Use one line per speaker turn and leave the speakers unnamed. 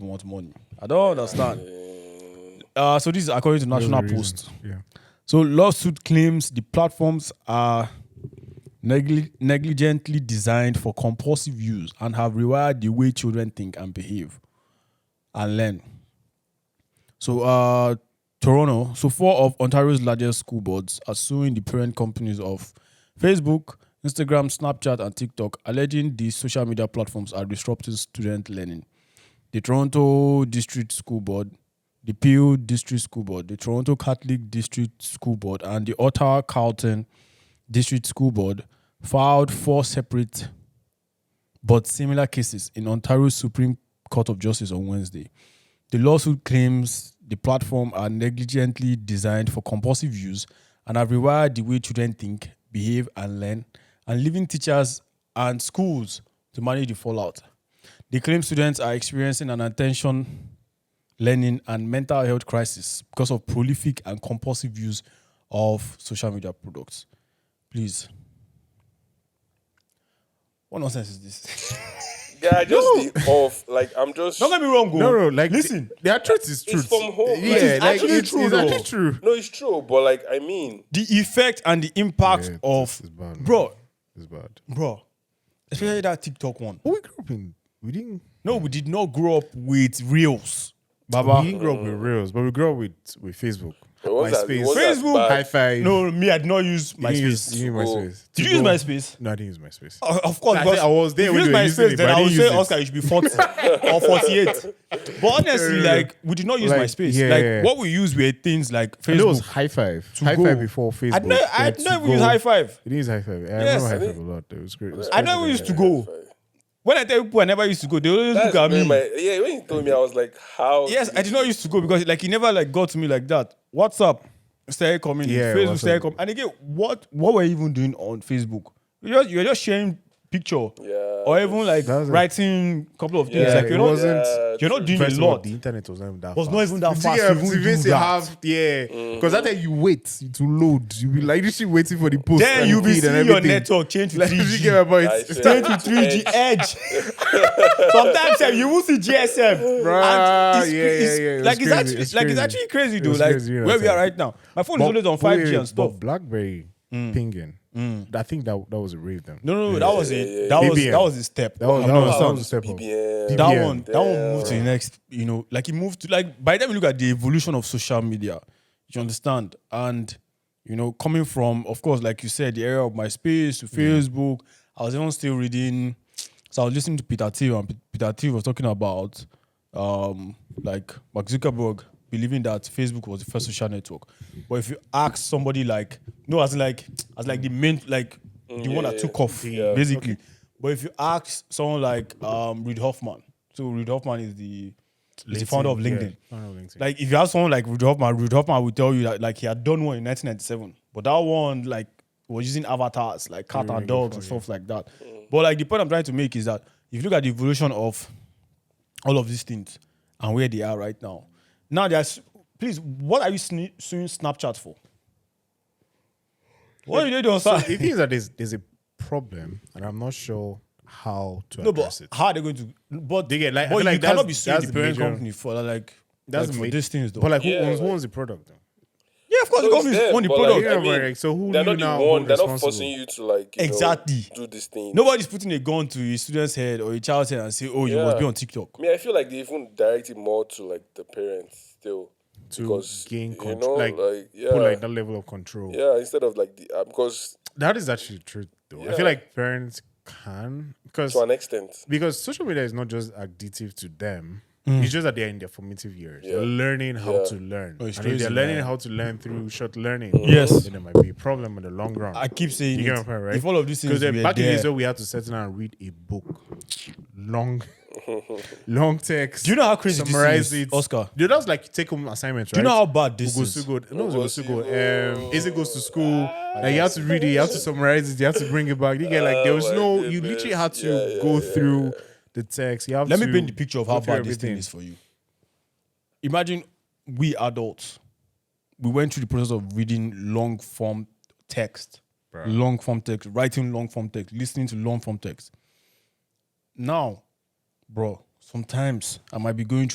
want money. I don't understand. Uh, so this is according to National Post.
Yeah.
So lawsuit claims the platforms are negli- negligently designed for compulsive use and have rewired the way children think and behave and learn. So uh Toronto, so four of Ontario's largest school boards are suing the parent companies of Facebook, Instagram, Snapchat, and TikTok, alleging these social media platforms are disrupting student learning. The Toronto District School Board, the Peel District School Board, the Toronto Catholic District School Board, and the Ottawa Carlton District School Board filed four separate but similar cases in Ontario's Supreme Court of Justice on Wednesday. The lawsuit claims the platform are negligently designed for compulsive use and have rewired the way children think, behave, and learn, and leaving teachers and schools to manage the fallout. They claim students are experiencing an attention, learning, and mental health crisis because of prolific and compulsive use of social media products. Please. What nonsense is this?
Guy, just the off. Like I'm just.
Don't get me wrong, oh. go.
No, no, like
listen.
the, their truth is truth.
It's from home.
Yeah,
It is
like
actually
it's,
true,
it's
though.
actually true.
No, it's true, but like I mean,
the effect and the impact
Yeah,
of
this is bad, man.
bro,
It's bad.
bro, especially that TikTok one.
But we grew up in we didn't
No, we did not grow up with reels,
we
Baba.
didn't grow up with reels, but we grew up with with Facebook,
It was that- it
MySpace,
was that
Facebook,
bad.
High Five.
No, me, I did not use
you didn't use,
MySpace.
you didn't use
Oh.
MySpace.
Did you use
Tigo-
MySpace?
No, I didn't use MySpace.
Uh, Of course,
I think
because
I was there
if
when
you
they were
use
using
MySpace,
it,
then
but I
I would
didn't
say
use it.
Oscar, you should be 40 or 48. But honestly,
Yeah.
like, we did not use
Like,
MySpace.
yeah,
like,
yeah.
what we used were things like
I know it was
Facebook.
High Five.
To
high
go.
Five before Facebook.
I know, I
then
know
To
we use
Go.
high five.
It is High Five. I
Yes,
remember
I
High
think-
Five a lot. though. It was great. It was
I
great.
know we used to go. When I tell people I never used to go, they always look
That's
at
very
me.
my- yeah, when you told me, I was like, how?
Yes,
did
I did not used to go because like he never like got to me like that. WhatsApp started coming, in,
Yeah,
Facebook
WhatsApp.
started coming, and again, what what were you even doing on Facebook? You're just, you're just sharing picture,
Yeah.
or even like
That's it.
writing a couple of things.
Yeah,
like
it
you're not
wasn't-
you're not doing
First
a
of all,
lot.
the internet was not even that.
Was
fast.
not even that
You
fast.
didn't
You
have-
wouldn't
even
do
say
that.
have- yeah,
Mm.
because that time you wait to load, you be like this shit waiting for the post.
then
and
you'll be
feed and
seeing your
everything.
network change to
Like, you
3G.
get my point?
I see.
Change to 3G edge. Sometimes sef, you will see GSM.
Bruh,
And it's, it's-
yeah, yeah, yeah, it
Like
was
it's,
crazy,
actually
it's
like it's
crazy.
actually crazy,
It
dude.
was
Like
crazy, you
where we
know,
are right now. My phone is always on
but wait,
5G and stuff. Mm.
But BlackBerry pinging, I think that that was a rave then.
No, no, no, that was it. That was
BBM.
that was a step.
that was
I'm
that
not
was, that
understand.
was a step up.
BBM.
that
Yeah.
one that one moved to the next you know like it moved to like by the time you look at the evolution of social media you understand and you know coming from of course like you said the area of MySpace
Mm.
to facebook i was even still reading so i was listening to peter thiel and P- peter thiel was talking about um like mark zuckerberg believing that facebook was the first social network but if you ask somebody like no as in like as like the main like the one that
Mm, yeah,
took off basically but if you ask someone like um, Reid Hoffman, so Reid Hoffman is the, is the founder of
Yeah,
LinkedIn.
founder of LinkedIn.
Like if you ask someone like Reid Hoffman, Reid Hoffman will tell you that like he had done one in 1997, but that one like was using avatars like cat and dogs and stuff like that. But like the point I'm trying to make is that if you look at the evolution of all of these things and where they are right now, now there's please what are you sne- suing Snapchat for? What are you doing on
So
Snapchat?
the thing is that there's there's a problem, and I'm not sure how to
No,
address
but
it.
how are they going to? But
They get, like-
but
I feel
you
like that's-
cannot be suing
that's
the
the
parent
major-
company for like
the
like, for
ma-
these things though.
But like, who
Yeah,
owns, who
like-
owns the product? Though?
yeah, of course, the
So
company
it's
is
them,
on the
but,
product.
Yeah,
Like, I mean,
but, like, so who
they're
do you
not
now
the one.
hold
They're not
responsible?
forcing you to like you know,
Exactly.
do this thing.
Nobody's putting a gun to a student's head or a child's head and say, "Oh, you must
Yeah.
be on TikTok."
I mean, I feel like they even direct it more to like the parents still
To
because
gain
you
control,
know,
like,
like, yeah,
Put like that level of control.
yeah, instead of like the uh, because
That is actually the truth, though. I
Yeah.
feel like parents can because
to an extent,
because social media is not just addictive to them.
Mm.
It's just that they're in their formative years. They're
Yeah.
learning how
Yeah. Mm-hmm.
to learn.
Oh, it's
and if they're
crazy,
learning
man.
how to learn through short learning,
Yes.
then there might be a problem in the long run.
I keep saying
you get
it.
my point, right?
If all of these things
Because
were
back in the days
there-
when we had to sit down and read a book, long, long text.
Do you know how crazy this thing
summarize
is,
it,
Oscar?
You know, that's like take home assignments, right?
Do you know how bad this is?
Ugosugo, no, it was
Ugosugo.
Ugosugo. Um, Izzy goes to school. Like you have to read it, you have to summarize it, you have to bring it back. You get like there was
my
no, you
goodness.
literally had to
Yeah, yeah,
go
yeah,
through the text. You have
Let
to
me paint the picture of
go
how
through
bad this thing
everything.
is for you. Imagine we adults, we went through the process of reading long form text, long form text, writing long form text, listening to long form text. Now, bro, sometimes I might be going through.